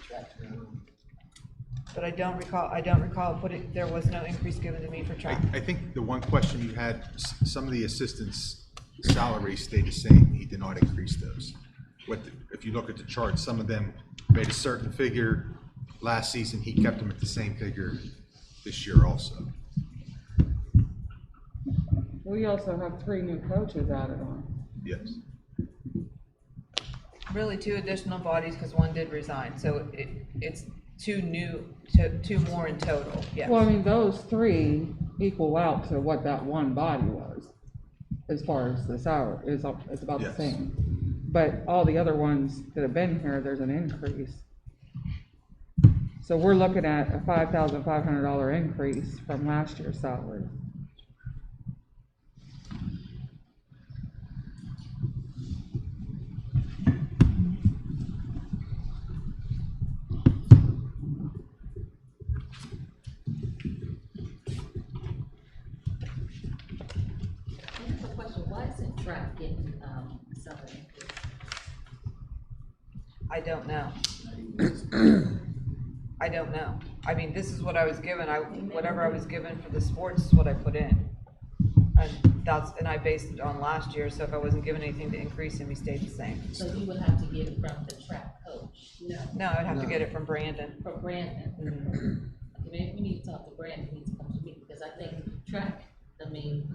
track minimum. But I don't recall, I don't recall putting, there was no increase given to me for I, track. I think the one question you had, s- some of the assistants' salaries stayed the same. He did not increase those. What, the- if you look at the chart, some of them made a certain figure last season. He kept them at the same figure this year also. We also have three new coaches added on. Yes. Really, two additional bodies, because one did resign, so it, it's two new, to- two more in total, yes. Well, I mean, those three equal out to what that one body was, as far as the salary, is, it's about the Yes. same. But all the other ones that have been here, there's an increase. So we're looking at a five thousand five hundred dollar increase from last year's salary. I have a question, why isn't Trapp getting, um, something? I don't know. I don't know. I mean, this is what I was given, I, whatever I was given for the sports is what I put in. And that's, and I based it on last year, so if I wasn't given anything to increase, then we stayed the same. So you would have to get it from the Trapp coach? No. No, I'd have to get it from Brandon. From Mm-hmm. Brandon? Okay, Maybe we need to talk to Brandon, he needs to come to me, because I think Trapp, I mean,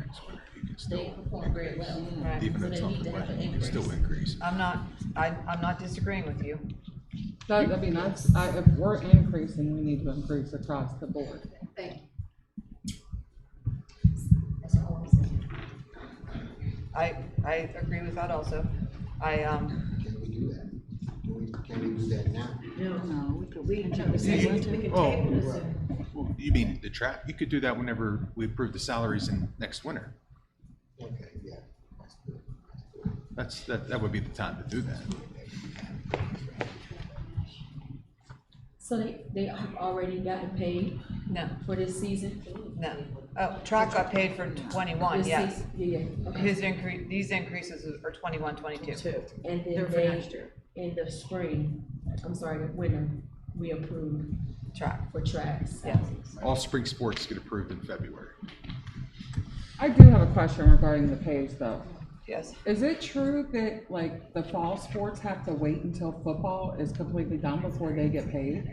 You can still- they perform very well. Right. Even So if it's they not need the to have budget, an you can still increase. increase. I'm not, I, I'm not disagreeing with you. That, I mean, that's, I, if we're increasing, we need to increase across the board. Thank you. That's all I'm saying. I, I agree with that also. I, um, Can we do that? Can we, can we do that now? No, we could wait until Oh, well, you mean the trap? You could do that whenever we approve the salaries in next winter. Okay, yeah. that's good. That's, that, that would be the time to do that. So they, they have already gotten paid no, for this season? no. Oh, track got paid for twenty-one, This yes. season? Yeah, yeah, okay. His increase, these increases are twenty-one, twenty-two. And then they, in the spring, I'm sorry, the winter, we approved Track, for tracks. yes. All spring sports get approved in February. I do have a question regarding the pays though. Yes, Is it true that like the fall sports have to wait until football is completely done before they get paid?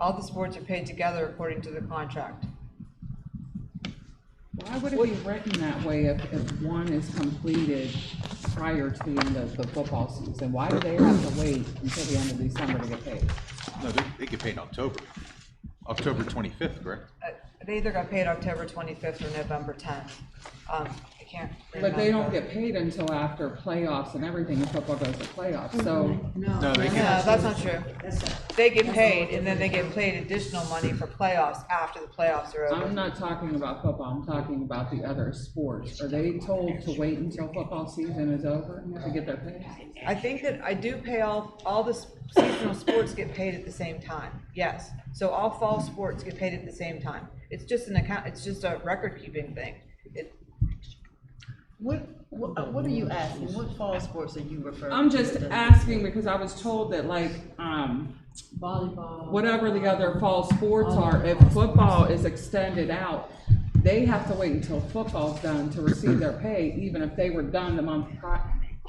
all the sports are paid together according to the contract. Why would it be written that way if, if one is completed prior to the end of the football season? Why do they have to wait until the end of December to get paid? No, they, they get paid in October. October twenty-fifth, correct? Uh, They either got paid October twenty-fifth or November tenth. Um, I can't remember. But they don't get paid until after playoffs and everything, if football goes to playoffs, so. No, they No, get, that's not true. They get paid and then they get paid additional money for playoffs after the playoffs are I'm over. not talking about football, I'm talking about the other sports. Are they told to wait until football season is over to get their pay? I think that I do pay all, all the s- seasonal sports get paid at the same time, yes. So all fall sports get paid at the same time. It's just an account, it's just a record-keeping thing. It, What, what, uh, what are you asking? What fall sports are you referring? I'm to? just The- asking because I was told that like, um, Volleyball. whatever the other fall sports are, if football is extended out, they have to wait until football's done to receive their pay, even if they were done the month prior.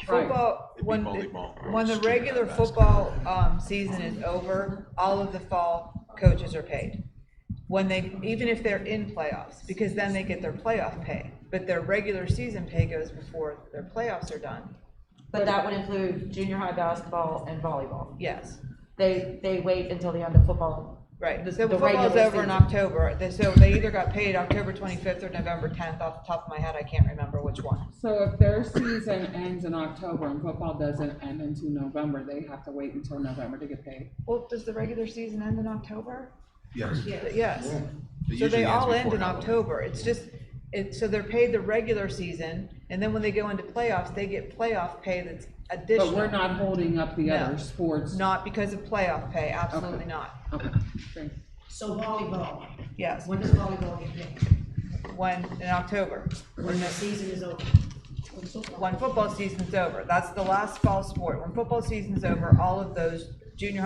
Football, It'd be when, the- volleyball or when the street regular basketball. football, um, season is over, all of the fall coaches are paid. When they, even if they're in playoffs, because then they get their playoff pay, but their regular season pay goes before their playoffs are done, But that would include junior high basketball and volleyball. yes, They, they wait until the end of football. right. The- So the football's regular over in season. October, They- so they either got paid October twenty-fifth or November tenth, off the top of my head, I can't remember which one. So if their season ends in October and football doesn't end until November, they have to wait until November to get paid. Well, does the regular season end in October? yes. It Yes. So usually they ends all end before in Halloween. October, it's just, it, so they're paid the regular season, and then when they go into playoffs, they get playoff pay that's But we're additional. not holding up the No. other sports. Not because of playoff pay, absolutely not, Okay, thanks. So volleyball, yes, when does volleyball get paid? when, in October, When the season is over? when football season's over, that's the last fall sport, when football season's over, all of those junior high